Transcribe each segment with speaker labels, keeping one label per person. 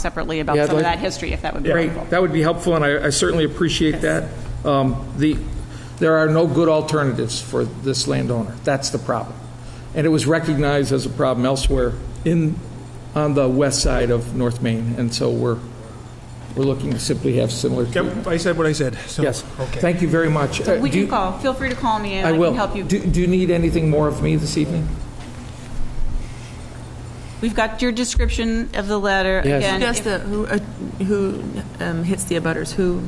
Speaker 1: separately about
Speaker 2: Yeah, I'd
Speaker 1: some of
Speaker 2: like-
Speaker 1: that history, if that would be
Speaker 3: Great,
Speaker 1: helpful.
Speaker 3: that would be helpful, and I I certainly appreciate that. Um, The, there are no good alternatives for this landowner. That's the problem. And it was recognized as a problem elsewhere in, on the west side of North Main, and so we're, we're looking to simply have similar treatment.
Speaker 4: Yep, I said what I said, so.
Speaker 3: Yes,
Speaker 4: Okay.
Speaker 3: thank you very much. Uh,
Speaker 1: We
Speaker 3: do
Speaker 1: can
Speaker 3: you-
Speaker 1: call. Feel free to call me and
Speaker 3: I
Speaker 1: I
Speaker 3: will.
Speaker 1: can help you.
Speaker 3: Do do you need anything more of me this evening?
Speaker 1: We've got your description of the letter.
Speaker 2: Yes.
Speaker 1: Again,
Speaker 5: Who does
Speaker 1: if-
Speaker 5: the, who, uh, who um, hits the abutters? Who,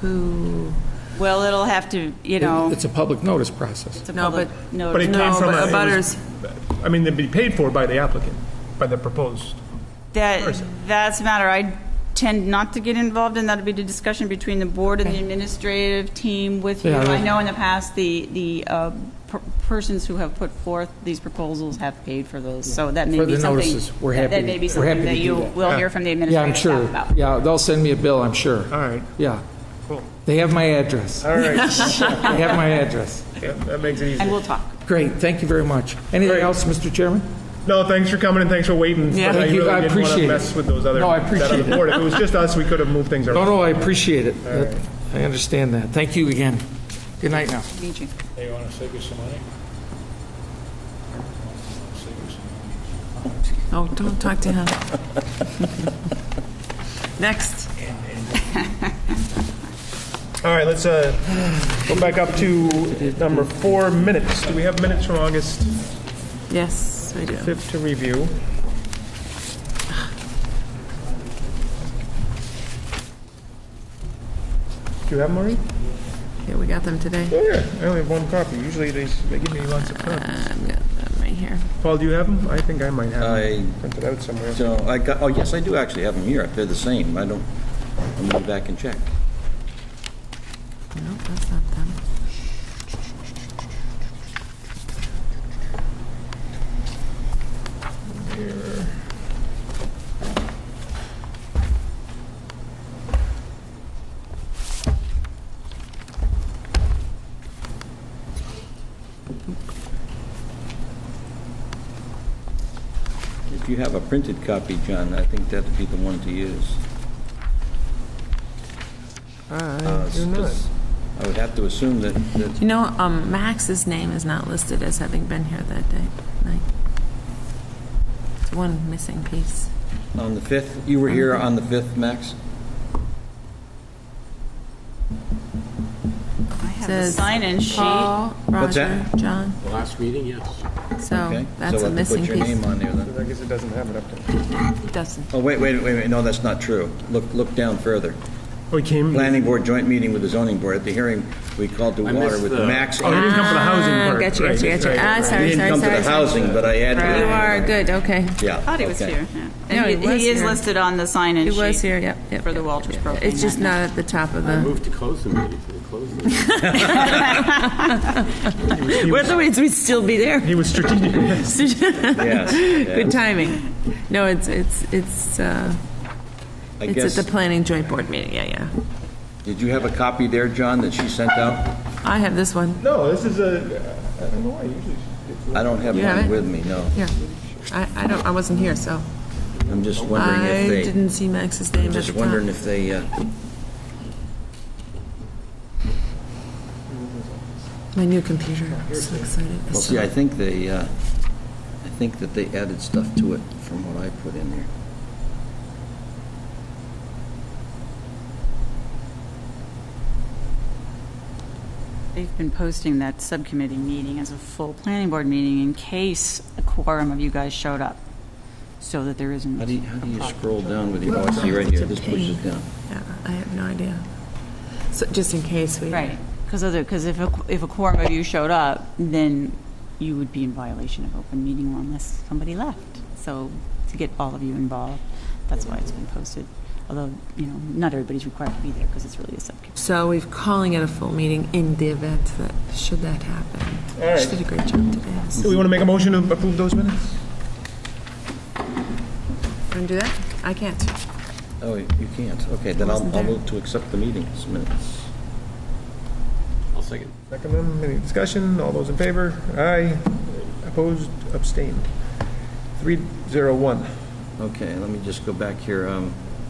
Speaker 5: who?
Speaker 1: Well, it'll have to, you know,
Speaker 3: It's a public notice process.
Speaker 1: it's a
Speaker 5: No,
Speaker 1: public
Speaker 5: but-
Speaker 4: But
Speaker 1: notice.
Speaker 4: it came
Speaker 5: No,
Speaker 4: from a.
Speaker 5: but
Speaker 4: it was-
Speaker 5: abutters-
Speaker 4: I mean, they'd be paid for by the applicant, by the proposed.
Speaker 1: That, that's a matter I tend not to get involved in. That'll be the discussion between the board and the administrative team with you.
Speaker 3: Yeah, I-
Speaker 1: I know in the past, the, the uh, per- persons who have put forth these proposals have paid for those, so that may
Speaker 3: For
Speaker 1: be
Speaker 3: the
Speaker 1: something.
Speaker 3: notices, we're
Speaker 1: that-
Speaker 3: happy
Speaker 1: That
Speaker 3: to-
Speaker 1: may be
Speaker 3: we're
Speaker 1: something
Speaker 3: happy to
Speaker 1: that
Speaker 3: do
Speaker 1: you
Speaker 3: that.
Speaker 1: will hear from the
Speaker 3: Yeah, I'm
Speaker 1: administrative staff
Speaker 3: sure.
Speaker 1: about.
Speaker 3: Yeah, they'll send me a bill, I'm sure.
Speaker 4: All right,
Speaker 3: Yeah,
Speaker 4: Uh, cool.
Speaker 3: they have my address.
Speaker 4: All right,
Speaker 3: They have my address.
Speaker 4: that that makes it
Speaker 1: And
Speaker 4: easy.
Speaker 1: we'll talk.
Speaker 3: Great, thank you very much. Anything else, Mr. Chairman?
Speaker 4: No, thanks for coming and thanks for waiting.
Speaker 5: Yeah.
Speaker 4: but
Speaker 3: Thank you, I
Speaker 4: really didn't want
Speaker 3: appreciate
Speaker 4: to
Speaker 3: it.
Speaker 4: mess with those other.
Speaker 3: No, I
Speaker 4: that
Speaker 3: appreciate
Speaker 4: other
Speaker 3: it.
Speaker 4: board. If it was just us, we could have moved things
Speaker 3: No,
Speaker 4: around.
Speaker 3: no, I appreciate it. I understand that. Thank you again. Good night now.
Speaker 1: Meet you.
Speaker 6: Hey, you want to save us some money? Save us some money.
Speaker 5: Oh, don't talk to him. Next.
Speaker 4: All right, let's uh, go back up to number four, minutes. Do we have minutes from August
Speaker 5: Yes, we do.
Speaker 4: 5th to review? Do you have Maureen?
Speaker 5: Yeah, we got them today.
Speaker 4: Oh, yeah, I only have one copy. Usually they s- they give me lots of copies.
Speaker 5: I've got them right here.
Speaker 4: Paul, do you have them? I think I might have
Speaker 7: I
Speaker 4: them printed out somewhere.
Speaker 7: So I got, oh, yes, I do actually have them here. They're the same. I don't, I'm going back and check.
Speaker 5: No, that's not them.
Speaker 7: If you have a printed copy, John, I think that'd be the one to use.
Speaker 4: I
Speaker 7: Uh,
Speaker 4: do not.
Speaker 7: 'cause I would have to assume that, that,
Speaker 5: You know, um, Max's name is not listed as having been here that day, night. It's one missing piece.
Speaker 7: on the 5th, you were here on the 5th, Max?
Speaker 1: I have the
Speaker 5: Says
Speaker 1: sign-in sheet.
Speaker 5: Paul,
Speaker 7: What's
Speaker 5: Roger,
Speaker 7: that?
Speaker 5: John.
Speaker 6: Last meeting, yes.
Speaker 5: So
Speaker 7: Okay.
Speaker 5: Oh, that's
Speaker 7: So
Speaker 5: a
Speaker 7: I have to
Speaker 5: missing
Speaker 7: put your
Speaker 5: piece.
Speaker 7: name on there then.
Speaker 4: I guess it doesn't have it up there.
Speaker 5: Doesn't.
Speaker 7: Oh, wait, wait, wait, wait, no, that's not true. Look, look down further.
Speaker 4: Oh, he came.
Speaker 7: Planning Board joint meeting with the zoning board. At the hearing, we called to
Speaker 6: I
Speaker 7: water
Speaker 6: missed
Speaker 7: with
Speaker 6: the-
Speaker 7: Max.
Speaker 4: Oh, he didn't come for the housing
Speaker 5: Ah,
Speaker 4: part.
Speaker 5: Gotcha, gotcha,
Speaker 4: Right,
Speaker 5: gotcha.
Speaker 4: right,
Speaker 5: Ah,
Speaker 4: right.
Speaker 7: He
Speaker 5: sorry, sorry,
Speaker 7: didn't come to
Speaker 5: sorry.
Speaker 7: the
Speaker 5: sorry.
Speaker 7: housing, but I added. it.
Speaker 5: You are, good, okay.
Speaker 7: Yeah.
Speaker 1: Thought he was
Speaker 7: okay.
Speaker 1: here. yeah.
Speaker 5: No,
Speaker 1: And
Speaker 5: he
Speaker 1: he- he
Speaker 5: was
Speaker 1: is
Speaker 5: here.
Speaker 1: listed on the sign-in
Speaker 5: It
Speaker 1: sheet.
Speaker 5: was here, yep, yep.
Speaker 1: For the
Speaker 5: yep,
Speaker 1: Walters
Speaker 5: yep.
Speaker 1: propane,
Speaker 5: It's just
Speaker 1: that
Speaker 5: not at the top of the,
Speaker 6: Move to close the meeting, to close the meeting.
Speaker 5: otherwise we'd still be there.
Speaker 4: He was strategic.
Speaker 7: Yes.
Speaker 5: Good
Speaker 7: yes.
Speaker 5: timing. No, it's, it's, it's, uh,
Speaker 7: I
Speaker 5: it's
Speaker 7: guess-
Speaker 5: at the planning joint board meeting, yeah, yeah.
Speaker 7: Did you have a copy there, John, that she sent out?
Speaker 5: I have this one,
Speaker 4: No, this is a. I don't know why. Usually,
Speaker 7: I don't have
Speaker 5: You have
Speaker 7: mine
Speaker 5: it?
Speaker 7: with me, no.
Speaker 5: yeah. I, I don't, I wasn't here, so.
Speaker 7: I'm just wondering
Speaker 5: I
Speaker 7: if they,
Speaker 5: didn't see Max's name
Speaker 7: I'm
Speaker 5: at the
Speaker 7: just
Speaker 5: top.
Speaker 7: wondering if they, uh,
Speaker 5: My new computer, I'm so excited.
Speaker 7: well, see, I think they, uh, I think that they added stuff to it from what I put in there.
Speaker 1: They've been posting that subcommittee meeting as a full planning board meeting in case a quorum of you guys showed up, so that there isn't.
Speaker 7: How do you, how do you
Speaker 1: a problem.
Speaker 7: scroll down with your, oh, I see right here, this pushes down.
Speaker 5: Yeah, I have no idea. So, just in case we.
Speaker 1: Right, because other, because if, a- if a quorum of you showed up, then you would be in violation of open meeting law unless somebody left. So to get all of you involved, that's why it's been posted, although, you know, not everybody's required to be there, because it's really a subcommittee.
Speaker 5: So we're calling it a full meeting in the event that, should that happen.
Speaker 4: All right.
Speaker 5: She did a great job today.
Speaker 4: Do we want to make a motion to approve those minutes?
Speaker 5: Want to do that? I can't.
Speaker 7: Oh, you can't, okay, then I'll,
Speaker 5: Wasn't
Speaker 7: I'll
Speaker 5: there.
Speaker 7: move to accept the meeting's minutes.
Speaker 6: I'll second.
Speaker 4: Second them. Any discussion? All those in favor? Aye. Opposed? Abstained? 301.
Speaker 7: Okay, let me just go back here. Um,